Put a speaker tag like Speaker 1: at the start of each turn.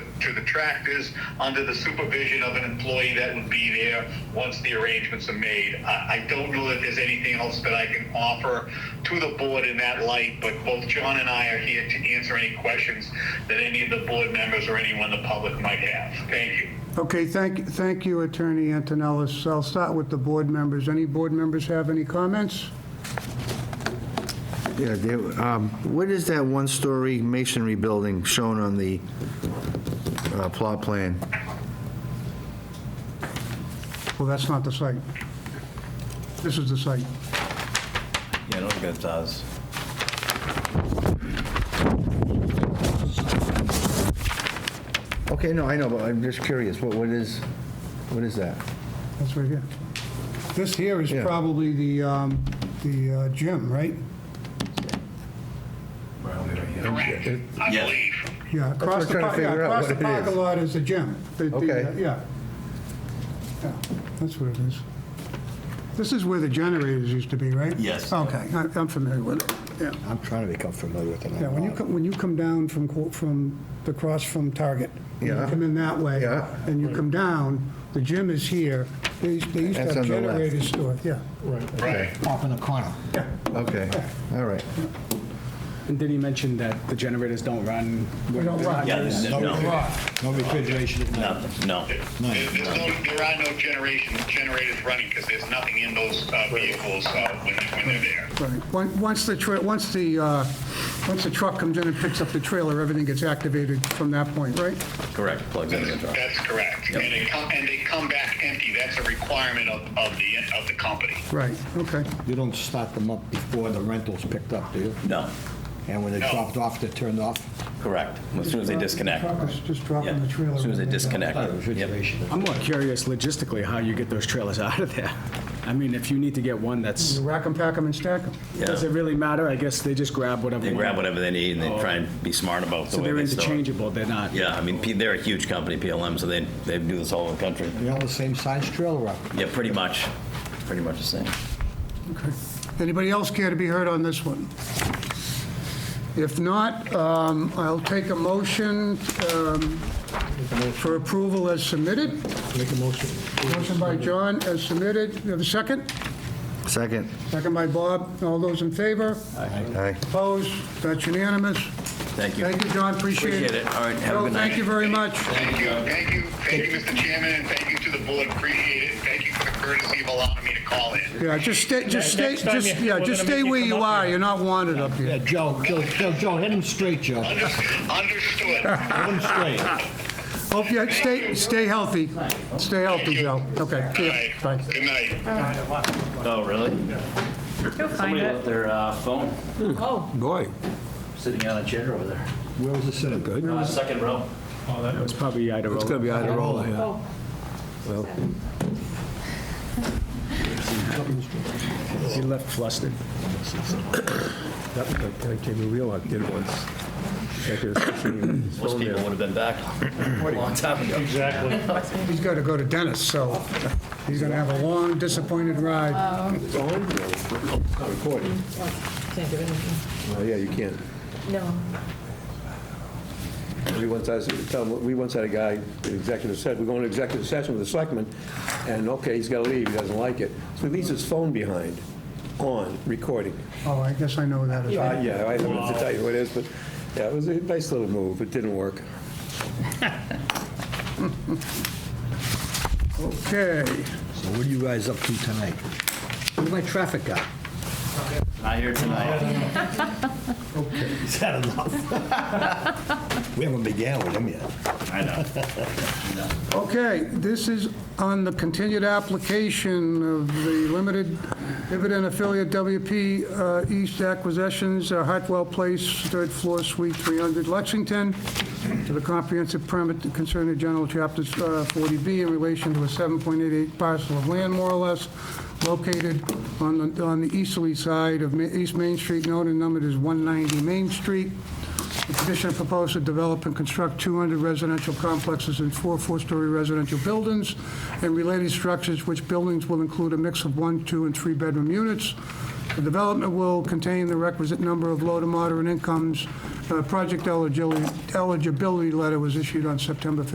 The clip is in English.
Speaker 1: to the tractors under the supervision of an employee that would be there once the arrangements are made. I, I don't know that there's anything else that I can offer to the board in that light, but both John and I are here to answer any questions that any of the board members or anyone in the public might have. Thank you.
Speaker 2: Okay, thank, thank you, Attorney Antonellis. I'll start with the board members. Any board members have any comments?
Speaker 3: Yeah, there- um, what is that one-story masonry building shown on the uh, plot plan?
Speaker 2: Well, that's not the site. This is the site.
Speaker 4: Yeah, I don't think it does.
Speaker 3: Okay, no, I know, but I'm just curious, what, what is, what is that?
Speaker 2: That's right here. This here is
Speaker 3: Yeah.
Speaker 2: probably the, um, the uh, gym, right?
Speaker 1: Correct, I
Speaker 4: Yes.
Speaker 1: believe.
Speaker 2: Yeah, across the,
Speaker 3: trying to
Speaker 2: par- yeah,
Speaker 3: figure out
Speaker 2: across the
Speaker 3: what it is.
Speaker 2: parking lot is the gym. The- the, uh,
Speaker 3: Okay.
Speaker 2: Yeah. Yeah, that's what it is. This is where the generators used to be, right?
Speaker 4: Yes.
Speaker 2: Okay, I- I'm familiar with it, yeah.
Speaker 5: I'm trying to become familiar with it.
Speaker 2: Yeah, when you come, when you come down from, Qu- from the cross from Target, you
Speaker 3: Yeah.
Speaker 2: come in that way,
Speaker 3: Yeah.
Speaker 2: and you come down, the gym is here, they used they used to
Speaker 3: That's
Speaker 2: have
Speaker 3: on the left.
Speaker 2: generators stored, yeah.
Speaker 1: Right.
Speaker 5: Off in the corner.
Speaker 2: Yeah.
Speaker 3: Okay, all right.
Speaker 6: And did he mention that the generators don't run?
Speaker 2: They don't run.
Speaker 4: Yeah,
Speaker 2: There's
Speaker 4: no, no,
Speaker 5: No refrigeration at night.
Speaker 4: nothing, no.
Speaker 1: There- There's no, there are no generation, generators running because there's nothing in those uh, vehicles uh, when, when they're there.
Speaker 2: Right. Once once the, tra- once the, uh, once the truck comes in and picks up the trailer, everything gets activated from that point, right?
Speaker 4: Correct, plugs into the truck.
Speaker 1: That's correct. And they come, and they come back empty. That's a requirement of, of the, of the company.
Speaker 2: Right, okay.
Speaker 5: You don't start them up before the rental's picked up, do you?
Speaker 4: No,
Speaker 5: And when they're
Speaker 1: No.
Speaker 5: dropped off, they're turned off?
Speaker 4: correct, as soon as they disconnect.
Speaker 2: Truck is Just
Speaker 4: Yeah,
Speaker 2: dropping the trailer.
Speaker 4: as soon as they
Speaker 2: in there.
Speaker 4: disconnect.
Speaker 5: Uh,
Speaker 4: Yep.
Speaker 5: Refrigeration.
Speaker 6: I'm more curious logistically how you get those trailers out of there. I mean, if you need to get one that's,
Speaker 2: You rack them, pack them, and stack them.
Speaker 6: does it really matter? I guess they just grab whatever.
Speaker 4: They
Speaker 6: one-
Speaker 4: grab whatever they need and they try and be smart about the
Speaker 6: So
Speaker 4: way
Speaker 6: they're
Speaker 4: they store it.
Speaker 6: interchangeable, they're not.
Speaker 4: Yeah, I mean, P- they're a huge company, PLM, so they, they do this all over the country.
Speaker 5: They're all the same size trailer up.
Speaker 4: Yeah, pretty much, pretty much the same.
Speaker 2: Anybody else care to be heard on this one? If not, um, I'll take a motion um, for approval as submitted.
Speaker 5: Make a motion.
Speaker 2: Motion by John as submitted. You have a second?
Speaker 3: Second,
Speaker 2: Second by Bob. All those in favor?
Speaker 3: aye.
Speaker 2: Opposed? That's unanimous.
Speaker 4: Thank you.
Speaker 2: Thank you, John. Appreciate it.
Speaker 4: Appreciate it. All right, have a
Speaker 2: Joe,
Speaker 4: good
Speaker 2: Thank
Speaker 4: night.
Speaker 2: you very much.
Speaker 1: Thank you, thank you, thank you, Mr. Chairman, and thank you to the board. Appreciate it. Thank you for the courtesy of allowing me to call in.
Speaker 2: Yeah, just stay, just stay,
Speaker 7: Next time
Speaker 2: just,
Speaker 7: you-
Speaker 2: yeah,
Speaker 7: we're
Speaker 2: just
Speaker 7: gonna
Speaker 2: stay
Speaker 7: make you
Speaker 2: where
Speaker 7: come
Speaker 2: you
Speaker 7: up
Speaker 2: are.
Speaker 7: here.
Speaker 2: You're not wanted up
Speaker 5: Yeah,
Speaker 2: here.
Speaker 5: Joe, Joe, Joe, Joe, hit him straight, Joe. Hit
Speaker 1: Under- Understood.
Speaker 5: him straight.
Speaker 2: Hope you, stay, stay healthy. Stay healthy, Joe. Okay,
Speaker 1: All
Speaker 2: see
Speaker 1: right.
Speaker 2: ya. Bye.
Speaker 1: Good night.
Speaker 8: Oh, really?
Speaker 7: He'll find
Speaker 8: Somebody
Speaker 7: it.
Speaker 8: left their uh, phone
Speaker 7: Oh,
Speaker 8: sitting on a chair over there.
Speaker 5: Where was the cinema? Good.
Speaker 8: Uh, Second row.
Speaker 6: It was probably Iderola. It's gonna be
Speaker 7: oh.
Speaker 6: He left flustered.
Speaker 9: That that came to real, I did once. Like, it was pushing his
Speaker 8: Most
Speaker 9: phone
Speaker 8: people
Speaker 9: there.
Speaker 8: would have been back a long time ago.
Speaker 7: Exactly.
Speaker 2: He's got to go to Dennis, so he's going to have a long, disappointed ride.
Speaker 9: Recording.
Speaker 7: Can't do anything.
Speaker 9: Oh, yeah, you can't.
Speaker 7: No.
Speaker 9: We once had, tell him- we once had a guy, the executive said, we're going to executive session with the selectman, and okay, he's got to leave, he doesn't like it. So he leaves his phone behind, on, recording.
Speaker 2: Oh, I guess I know that is.
Speaker 9: Uh, Yeah, I don't have to tell you what it is, but, yeah, it was a nice little move, it didn't work.
Speaker 2: Okay.
Speaker 5: So what are you guys up to tonight? Where's my traffic guy?
Speaker 8: Not here tonight.
Speaker 5: Is that enough? We haven't began with him yet.
Speaker 8: I know.
Speaker 2: Okay, this is on the continued application of the limited dividend affiliate WP uh, East Acquisitions, uh, Hartwell Place, third floor, suite 300, Lexington, to the comprehensive permit concerning general chapters uh, 40B in relation to a 7.88 parcel of land, more or less, located on the, on the easterly side of Ma- East Main Street, known and numbered as 190 Main Street. The petitioner proposed to develop and construct 200 residential complexes and four four-story residential buildings and related structures, which buildings will include a mix of one, two, and three-bedroom units. The development will contain the requisite number of low to moderate incomes uh, project eligibility eligibility letter was issued on September